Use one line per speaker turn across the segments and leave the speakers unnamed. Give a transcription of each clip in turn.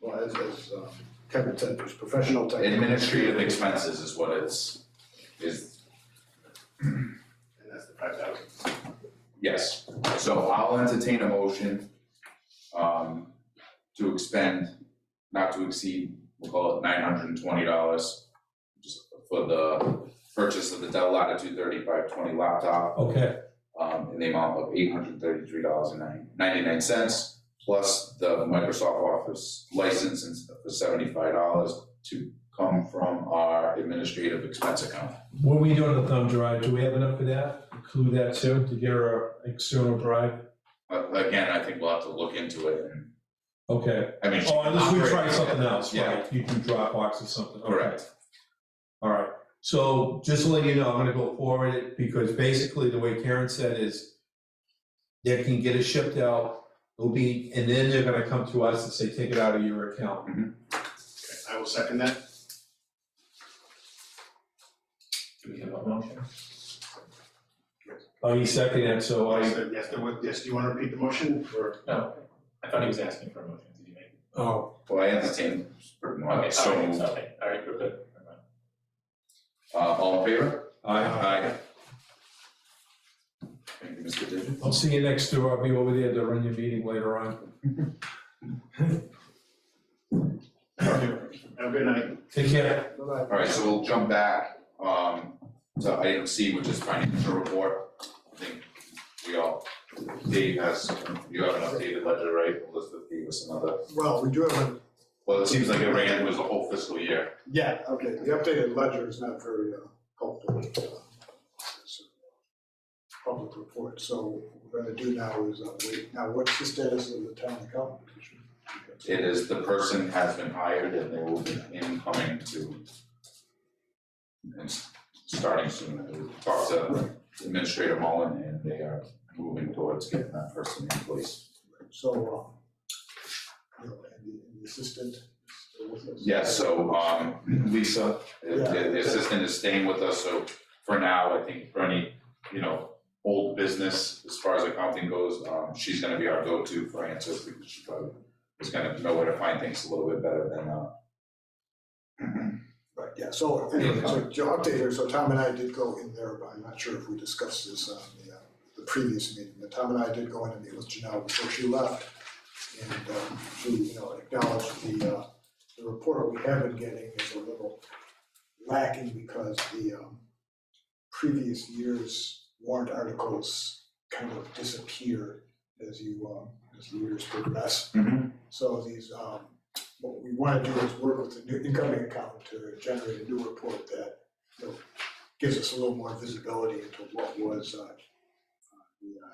Well, as, as uh, Kevin said, there's professional type.
Administrative expenses is what it's, is,
And that's the five thousand.
yes. So I'll entertain a motion um, to expend, not to exceed, we'll call it nine hundred and twenty dollars just for the purchase of the Dell Latitude thirty-five twenty laptop
Okay,
um, in the amount of eight hundred and thirty-three dollars and ninety-nine cents, plus the Microsoft Office license and for seventy-five dollars to come from our administrative expense account.
what are we doing the thumb drive? Do we have enough for that? Include that too, to get our external drive?
Uh, again, I think we'll have to look into it and,
Okay,
I mean.
oh, unless we try something else,
Yeah,
right? You can Dropbox or something, okay.
correct.
All right, so just to let you know, I'm gonna go forward it, because basically the way Karen said is they can get it shipped out, it'll be, and then they're gonna come to us and say, take it out of your account.
I will second that.
Do we have a motion? Oh, you second it, so I,
Yes, there- Yes, there was, yes, do you want to repeat the motion or?
No, I thought he was asking for a motion, did you make? it?
oh,
Well, I entertain,
Okay,
Uh, so,
sorry, sorry, all right, we're good. Never mind.
uh, all in favor?
I,
Thank you, Mr. Digit.
I'll see you next door, I'll be over there to run your meeting later on.
Have a good night.
Take care.
Bye-bye.
All right, so we'll jump back, um, to item C, which is financial report. I think we all, Dave has, you have an updated ledger, right? Elizabeth gave us another,
Well, we do have a,
well, it seems like it ran, was the whole fiscal year.
yeah, okay, the updated ledger is not very uh, helpful. uh, it's a Public report, so what we're gonna do now is, uh, wait, now what's the status of the town account?
It is, the person has been hired and they will be incoming to and s- starting soon, I will talk to Administrator Mullen and they are moving towards getting that person in place.
So, um, you know, and the, and the assistant is still with us.
Yeah, so um Lisa, the the assistant is staying with us, so for now, I think for any, you know, old business as far as accounting goes, um she's gonna be our go-to for answers because she probably is gonna know where to find things a little bit better than uh
Right, yeah, so anyway, so to update here, so Tom and I did go in there, but I'm not sure if we discussed this on the, uh, the previous meeting, but Tom and I did go in and meet with Janelle before she left. And, um, she, you know, acknowledged the, uh, the report we have been getting is a little lacking because the, um, previous year's warrant articles kind of disappear as you, um, as the years progress. So these, um, what we wanna do is work with the new incoming accountant to generate a new report that, you know, gives us a little more visibility into what was, uh, uh, the, uh,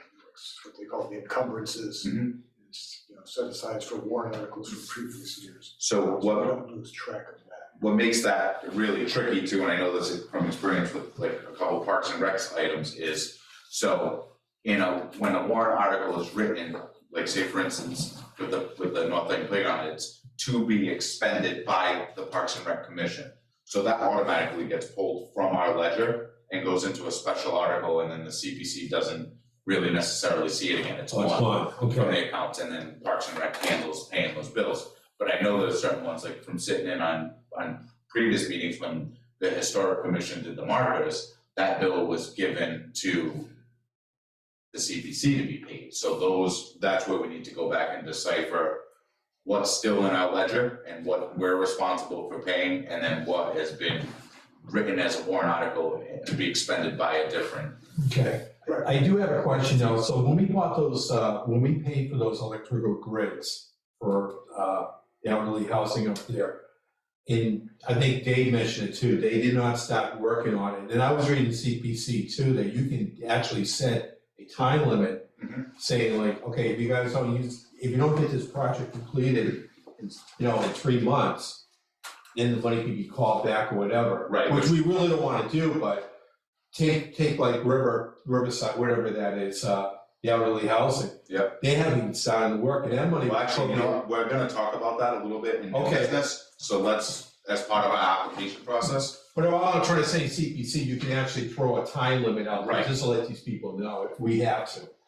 what they call the encumbrances.
Mhm.
It's, you know, set aside for warrant articles from previous years.
So
So
what
We don't lose track of that.
what makes that really tricky too, and I know this from experience with like a couple parks and recs items is, so, you know, when a warrant article is written, like say for instance, with the, with the North Lake Playground, it's to be expended by the Parks and Rec Commission. So that automatically gets pulled from our ledger and goes into a special article, and then the CPC doesn't really necessarily see it again, it's
Oh,
one
it's one,
from
okay.
the accounts and then Parks and Rec handles paying those bills. But I know there's certain ones, like from sitting in on, on previous meetings when the Historic Commission did the markers, that bill was given to the CPC to be paid. So those, that's where we need to go back and decipher what's still in our ledger and what we're responsible for paying, and then what has been written as a warrant article to be expended by a different.
Okay,
Right.
I do have a question though, so when we bought those, uh, when we paid for those electrical grids for, uh, elderly housing up there, and I think Dave mentioned it too, they did not stop working on it, and I was reading CPC too, that you can actually set a time limit
Mhm.
saying like, okay, if you guys don't use, if you don't get this project completed, in you know, in three months, then the money can be called back or whatever.
Right,
Which we really don't wanna do, but take take like River Riverside, whatever that is, uh, the elderly housing.
Yep.
They haven't even started the work, and that money.
Well, actually, you know, what, we're gonna talk about that a little bit in new
Okay.
business, so let's, as part of our application process.
But all I'm trying to say, CPC, you can actually throw a time limit out, there,
Right.
just to let these people know if we have to.